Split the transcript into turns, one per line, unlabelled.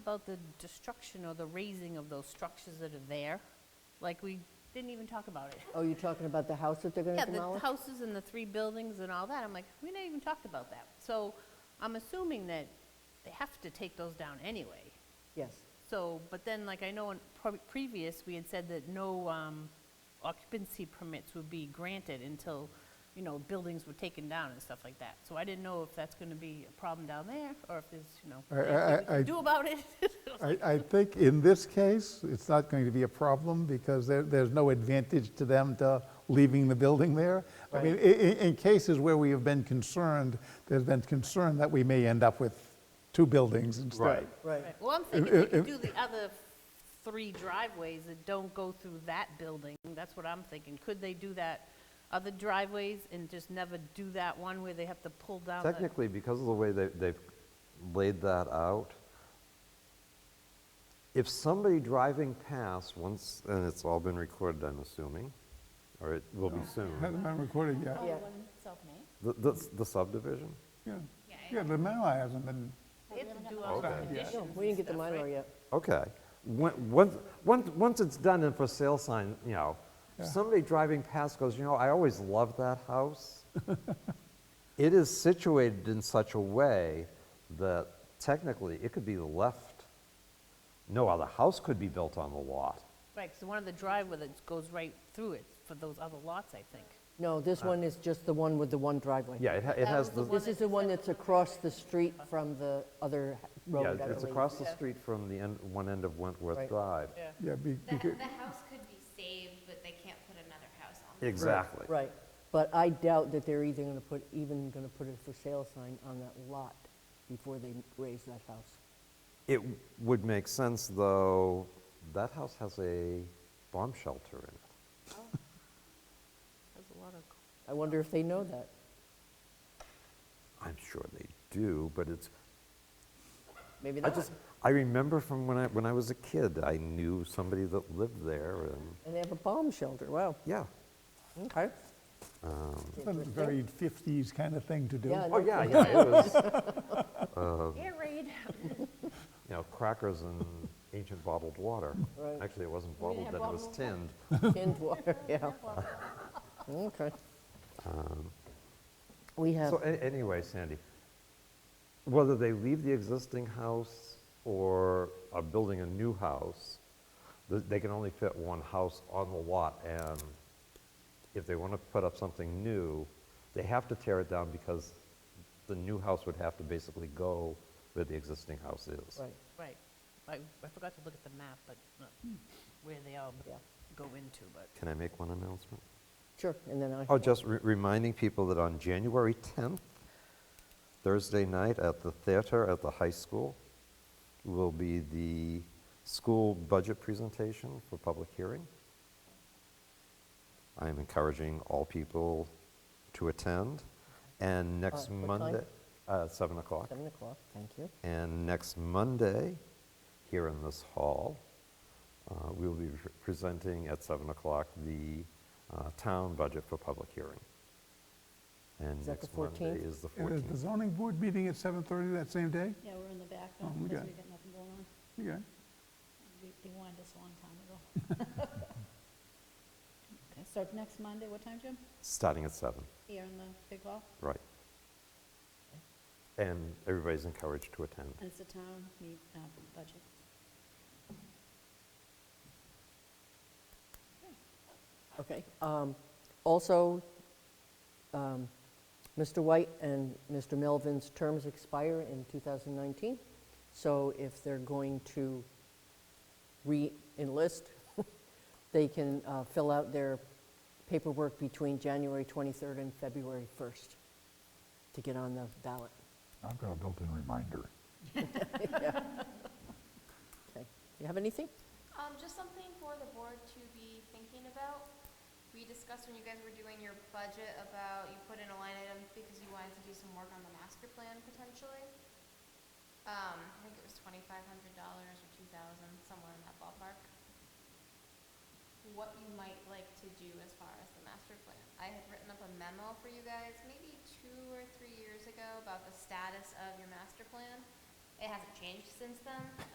about the destruction or the raising of those structures that are there? Like, we didn't even talk about it.
Oh, you're talking about the house that they're going
Yeah,
to
the
demolish?
houses and the three buildings and all that, I'm like, we never even talked about that. So I'm assuming that they have to take those down anyway.
Yes.
So, but then, like, I know in pre- previous, we had said that no um, occupancy permits would be granted until, you know, buildings were taken down and stuff like that. So I didn't know if that's going to be a problem down there, or if there's, you know,
I- I-
anything we
I-
can do about it.
I, I think in this case, it's not going to be a problem because there, there's no advantage to them to leaving the building there. I mean, in, in cases where we have been concerned, there's been concern that we may end up with two buildings instead.
Right.
Right.
Right, Well, I'm thinking we
if-
could
if-
do the other three driveways that don't go through that building. That's what I'm thinking. Could they do that, other driveways, and just never do that one where they have to pull down the...
Technically, because of the way they- they've laid that out, if somebody driving past once, and it's all been recorded, I'm assuming, or it will be soon,
Hasn't been recorded yet.
Yeah.
the- the the subdivision?
Yeah, Yeah, the MyLAR hasn't been,
They have to do all the
Okay.
conditions
No, we didn't get the
and stuff, right?
Mylar yet.
Okay. When- Once, once once it's done and for sale sign, you know,
Yeah.
somebody driving past goes, you know, I always loved that house. It is situated in such a way that technically it could be left, no other house could be built on the lot.
Right, because one of the driveway that goes right through it for those other lots, I think.
No, this one is just the one with the one driveway.
Uh, Yeah, it ha- it has
was the
the,
one-
This is the one that's across the street from the other h- road, I
yeah,
believe.
it's across the street from the end, one end of Wentworth
Right.
Drive.
yeah, be-
The,
becau-
the house could be saved, but they can't put another house on it.
Exactly.
Right. But I doubt that they're either going to put, even going to put a for sale sign on that lot before they raise that house.
It would make sense, though, that house has a bomb shelter in it.
There's a lot of...
I wonder if they know that.
I'm sure they do, but it's,
Maybe
I
they
just, I remember from when I, when I was a kid, I knew somebody that lived there, and,
And they have a bomb shelter, wow,
yeah.
okay.
it's a very 50s kind of thing to do.
Yeah, no
Oh, yeah,
kidding.
yeah, it was, you
Air raid.
know, crackers and ancient bottled water.
Right.
Actually, it wasn't bottled,
have
then it was
bottled
tinned.
Tinned water, yeah. Okay. We have,
Um, So a- anyway, Sandy, whether they leave the existing house or are building a new house, th- they can only fit one house on the lot, and if they want to put up something new, they have to tear it down because the new house would have to basically go where the existing house is.
right,
Right. I I forgot to look at the map, but uh, where they all
Yeah.
go into, but...
Can I make one announcement?
sure, and then I.
Oh, just re- reminding people that on January 10th, Thursday night at the theater at the high school, will be the school budget presentation for public hearing. I am encouraging all people to attend. And next
Uh, what time?
Monday, uh, 7 o'clock.
Seven o'clock, thank you.
And next Monday, here in this hall, uh, we will be pre- presenting at 7 o'clock the uh, town budget for public hearing. And
Is that the
next Monday
14th?
is the
Uh, Is the
14th.
zoning board meeting at 7:30 that same day?
Yeah, we're in the back
Oh,
though,
we
because
got-
we got nothing going on.
Okay.
We- They wanted us a long time ago. Okay, So next Monday, what time, Jim?
Starting at 7,
Here in the big hall?
right. And everybody's encouraged to attend.
And it's the town meet, uh, budget.
Okay. um, Also, um, Mr. White and Mr. Melvin's terms expire in 2019, so if they're going to re-enlist, they can uh, fill out their paperwork between January 23rd and February 1st to get on the ballot.
I've got a built-in reminder.
Okay. You have anything?
Um, just something for the board to be thinking about. We discussed when you guys were doing your budget about you put in a line item because you wanted to do some work on the master plan potentially. Um, I think it was twenty-five hundred dollars or two thousand, somewhere in that ballpark. What you might like to do as far as the master plan. I had written up a memo for you guys maybe two or three years ago about the status of your master plan. It hasn't changed since then,